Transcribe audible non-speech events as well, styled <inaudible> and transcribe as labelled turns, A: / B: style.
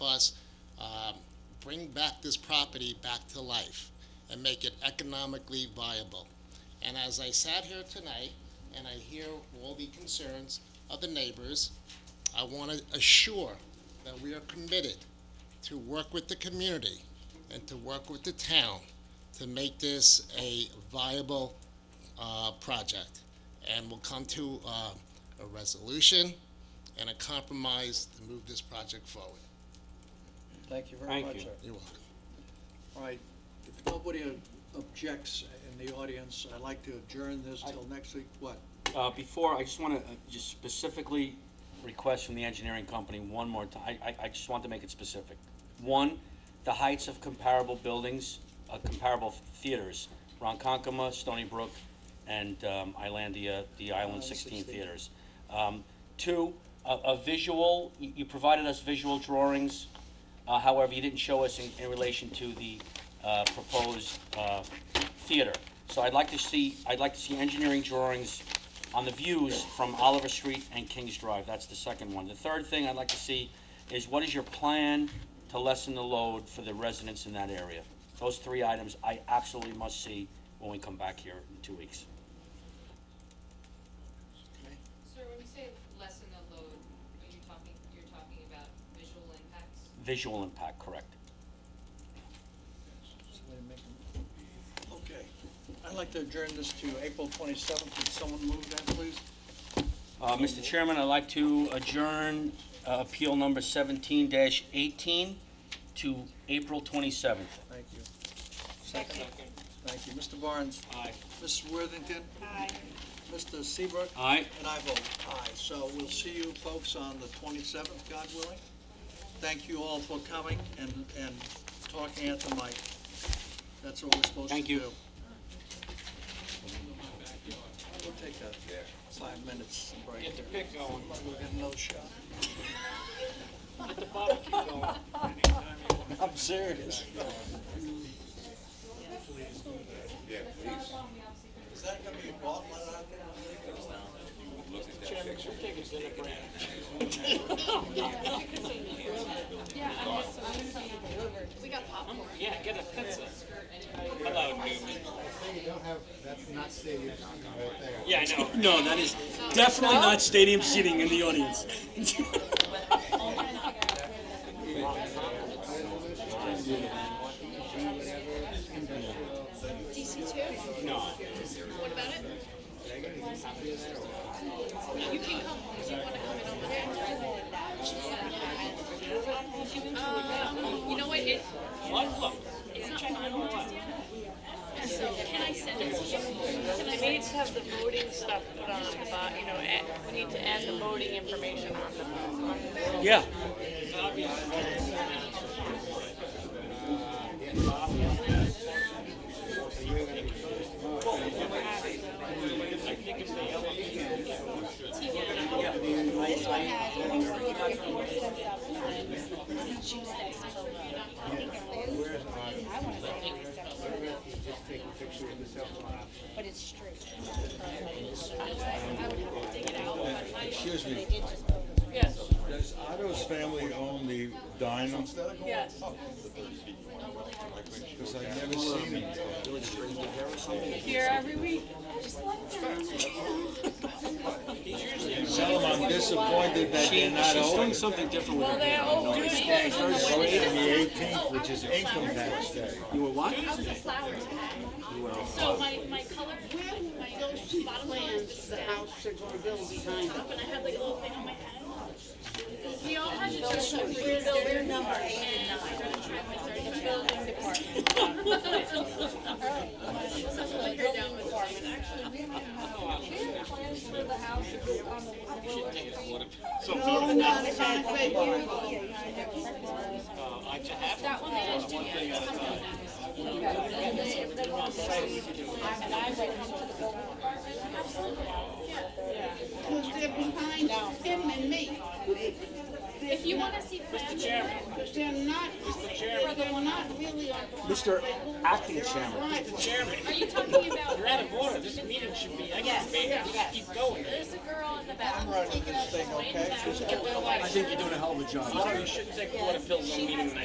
A: um, bring back this property back to life and make it economically viable. And as I sat here tonight and I hear all the concerns of the neighbors, I want to assure that we are committed to work with the community and to work with the town to make this a viable uh, project. And we'll come to uh, a resolution and a compromise to move this project forward.
B: Thank you very
C: Thank
B: much,
C: you.
B: sir.
A: You're welcome.
B: All right, if nobody objects in the audience, I'd like to adjourn this till next week, what?
C: Uh, Before, I just want to just specifically request from the engineering company one more time. I, I just want to make it specific. One, the heights of comparable buildings, uh, comparable theaters, Ronkonkoma, Stony Brook, and um, Islandia, the Island
B: Island
C: 16
B: 16.
C: theaters. Um, Two, a a visual, you you provided us visual drawings, uh, however, you didn't show us in in relation to the uh, proposed uh, theater. So I'd like to see, I'd like to see engineering drawings on the views from Oliver Street and Kings Drive. That's the second one. The third thing I'd like to see is what is your plan to lessen the load for the residents in that area? Those three items I absolutely must see when we come back here in two weeks.
D: Sir, when you say lessen the load, are you talking, you're talking about visual impacts?
C: Visual impact, correct?
B: Somebody make a- Okay, I'd like to adjourn this to April twenty-seventh, Could someone move that, please?
C: Uh, Mr. Chairman, I'd like to adjourn uh, appeal number seventeen eighteen to April twenty-seventh.
B: Thank you. Second. Thank you, Mr. Barnes.
C: Aye.
B: Mrs. Worthington. Aye. Mr. Seabrook.
C: Aye.
B: And I vote aye. So we'll see you folks on the 27th, God willing. Thank you all for coming and, and talking at the mic. That's what we're supposed to do.
C: Thank you.
B: We'll take a five minutes break. Get the pick going. We'll get another shot. Get the barbecue going. <laughs> I'm serious. Is that gonna be a ball let out there?
E: Yeah, I know. No, that is definitely not stadium seating in the audience.
F: DC two? No. What about it? You can come, do you wanna come in over here? Um, you know what, it. It's not finalized yet. So can I send it to you? Can I
G: We need to have the voting stuff put on, but, you know, add- we need to add the voting information on the, on the
C: Yeah.
F: But it's straight. I would have to dig it out, but my. Excuse me.
G: Yes,
H: Does Otto's family own the diner?
G: yes.
H: Oh. Because I've never seen it.
G: Here every week.
H: Tell them I'm disappointed that they're not open. It's
E: something different with
G: Well, they're all due today.
H: the eighteenth, which is income tax day.
E: You were what?
F: So my, my color, my bottom line is the house they're gonna build behind. Top and I had like a little thing on my head. We all had to just show your building number and I'm gonna try my thirty building department. No, not exactly. That one they just do.
I: Because they're behind him and me.
F: If you wanna see plans.
I: Because they're not, they're not really on.
E: Mr. Acting Chairman.
F: Are you talking about? You're
I: out of
F: order, this meeting should be, I can't keep going. There's a girl in the back.
B: I'm running this thing, okay?
E: I think you're doing a hell of a job.
G: Shouldn't take quarter pills on meeting